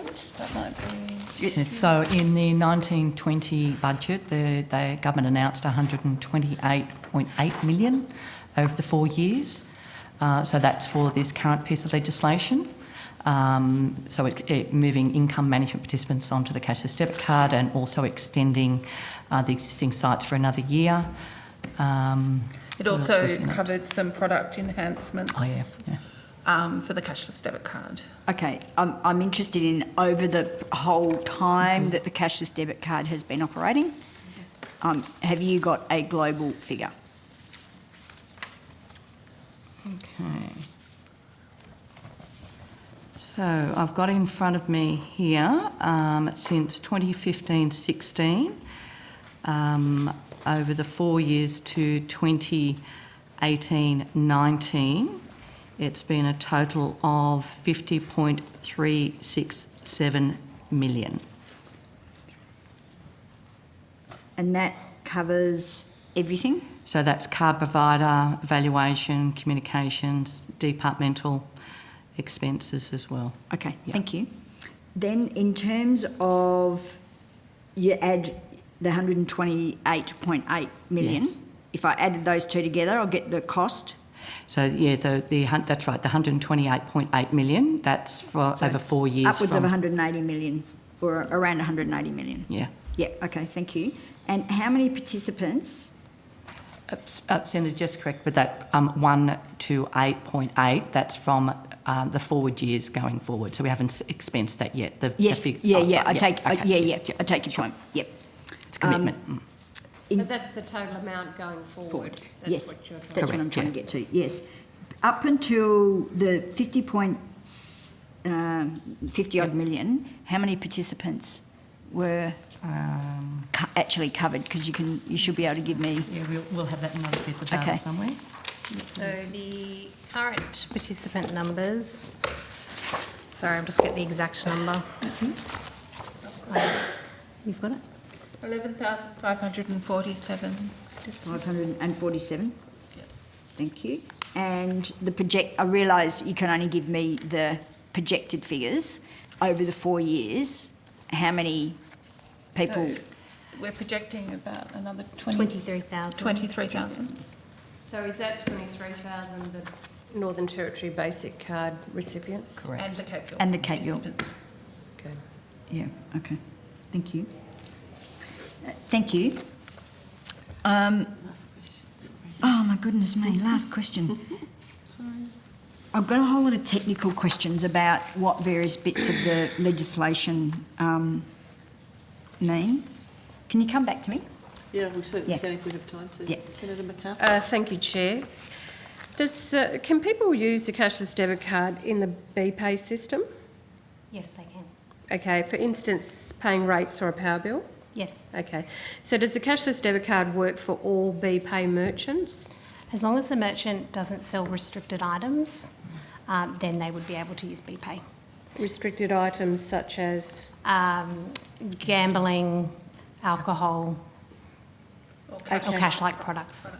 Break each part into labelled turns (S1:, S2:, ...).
S1: which that might be.
S2: So in the 1920 budget, the, the government announced 128.8 million over the four years. Uh, so that's for this current piece of legislation. Um, so it, it moving income management participants onto the cashless debit card and also extending uh, the existing sites for another year. Um,
S1: It
S2: what else
S1: also
S2: was in it?
S1: covered some product
S2: Oh yeah,
S1: enhancements
S2: yeah.
S1: um, for the cashless debit card.
S3: Okay, I'm, I'm interested in over the whole time that the cashless debit card has been operating, um, have you got a global figure?
S2: Okay. So I've got in front of me here, um, since 2015 16, um, over the four years to 2018 19, it's been a total of 50.367 million.
S3: And that covers everything?
S2: So that's card provider, valuation, communications, departmental expenses as well.
S3: Okay,
S2: Yeah.
S3: thank you. Then in terms of, you add the 128.8 million.
S2: Yes.
S3: If I added those two together, I'll get the cost.
S2: So yeah, the, the hun- that's right, the 128.8 million, that's for
S3: So
S2: over
S3: it's
S2: four years.
S3: Upwards of
S2: from-
S3: 180 million, or around 180 million.
S2: Yeah.
S3: Yeah, okay, thank you. And how many participants?
S2: Uh, s- uh, Senator, just correct, but that um, 1 to 8.8, that's from um, the forward years going forward. So we haven't s- expensed that yet. The, the
S3: Yes,
S2: fig-
S3: yeah,
S2: oh,
S3: yeah, I
S2: yeah,
S3: take, um, I-
S2: okay,
S3: yeah, yeah, I take your point, yep.
S2: It's a commitment. Mm.
S3: In-
S4: But that's the total amount going forward.
S3: Yes,
S4: That's what you're trying
S3: that's
S4: to
S3: what I'm
S2: Correct,
S3: trying to get to, yes. Up until the 50 point, s- um, 50 odd million, how many participants were co- actually covered? Because you can, you should be able to give me,
S2: Yeah, we'll, we'll have that in another piece of
S3: data Okay.
S2: somewhere.
S4: So the current participant numbers, sorry, I'm just getting the exact number. You've got it?
S1: 11,547.
S3: 547?
S1: Yeah.
S3: Thank you. And the project, I realise you can only give me the projected figures over the four years. How many people?
S1: So We're projecting about another 20
S4: 23,000.
S1: 23,000.
S4: So is that 23,000 the Northern Territory Basic Card recipients?
S2: Correct.
S1: And the Cape York.
S3: And the Cape York.
S1: participants.
S4: Okay.
S3: Yeah, okay. Thank you. Uh, Thank you. Um, Oh, my goodness me, last question. I've got a whole lot of technical questions about what various bits of the legislation um, mean. Can you come back to me?
S5: Yeah, we certainly
S3: Yeah.
S5: can if we have time
S3: Yeah.
S5: to. Senator McCarthy?
S4: Uh, Thank you, Chair. Does, uh, can people use the cashless debit card in the BPay system?
S6: Yes, they can.
S4: Okay, for instance, paying rates or a power bill?
S6: Yes.
S4: Okay, so does the cashless debit card work for all BPay merchants?
S6: As long as the merchant doesn't sell restricted items, um, then they would be able to use BPay.
S4: Restricted items such as,
S6: Um, gambling, alcohol, or
S4: Okay.
S6: cash like products.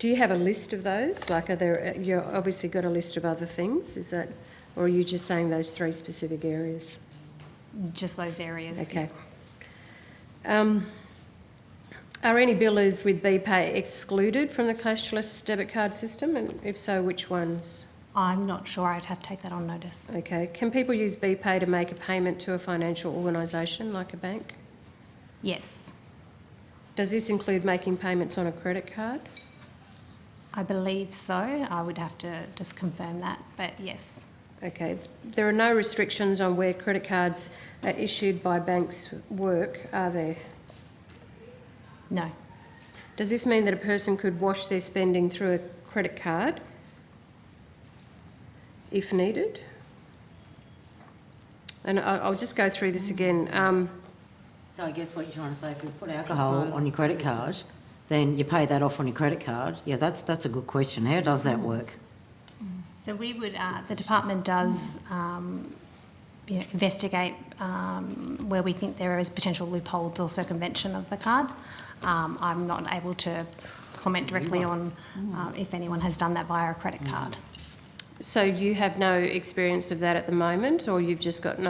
S4: do you have a list of those? Like, are there, you obviously got a list of other things, is that, or are you just saying those three specific areas?
S6: Just those areas.
S4: Okay. Um, Are any billers with BPay excluded from the cashless debit card system? And if so, which ones?
S6: I'm not sure I'd have to take that on notice.
S4: Okay, can people use BPay to make a payment to a financial organisation like a bank?
S6: Yes.
S4: Does this include making payments on a credit card?
S6: I believe so. I would have to just confirm that, but yes.
S4: Okay, there are no restrictions on where credit cards are issued by banks work, are there?
S6: No.
S4: Does this mean that a person could wash their spending through a credit card if needed? And I- I'll just go through this again. Um,
S7: So I guess what you're trying to say, if you put alcohol on your credit card, then you pay that off on your credit card. Yeah, that's, that's a good question. How does that work?
S6: So we would, uh, the department does um, you know, investigate um, where we think there is potential loopholes or circumvention of the card. Um, I'm not able to comment directly on uh, if anyone has done that via a credit card.
S4: So you have no experience of that at the moment, or you've just got no